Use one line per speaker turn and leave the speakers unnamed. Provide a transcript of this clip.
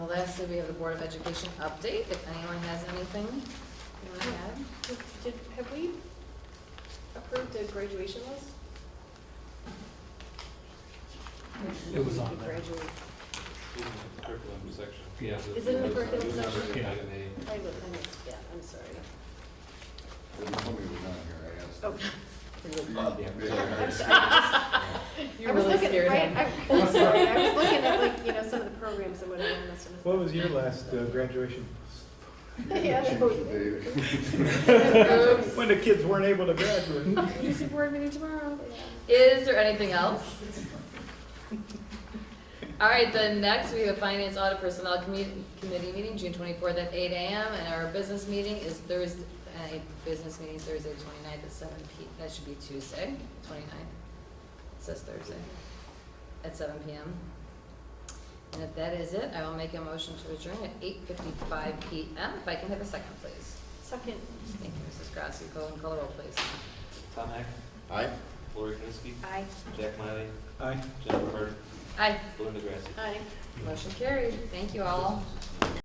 lastly, we have the Board of Education update, if anyone has anything you want to add.
Did, have we approved a graduation list?
It was on there.
Graduate.
Even the curriculum section.
Yeah.
Is it in the curriculum
It was under
section?
item A.
I would, I missed, yeah, I'm sorry.
Well, you told me it was on here, I asked.
Okay.
Yeah.
I'm sorry. I just- I was looking, right, I- I'm sorry, I was looking at like, you know, some of the programs and whatever, I must have missed.
What was your last uh, graduation?
Yeah,
Change the date.
Oops.
When the kids weren't able to graduate.
Easy board meeting tomorrow, yeah.
Is there anything else? All right, then next, we have Finance Audit Personnel Commu- Committee meeting, June twenty-fourth at eight AM, and our business meeting is Thursday, uh, business meeting Thursday, 29th at seven P, that should be Tuesday, 29th. It says Thursday, at seven PM. And if that is it, I will make a motion to adjourn at eight fifty-five PM, if I can have a second, please.
Second,
Thank you, Mrs. Grassi, go and call roll, please.
Tom Heck,
Aye.
Lori Knutski,
aye.
Jack Miley,
Aye.
Jennifer Hart,
Aye,
Belinda Grassi.
Aye.
motion carried, thank you all.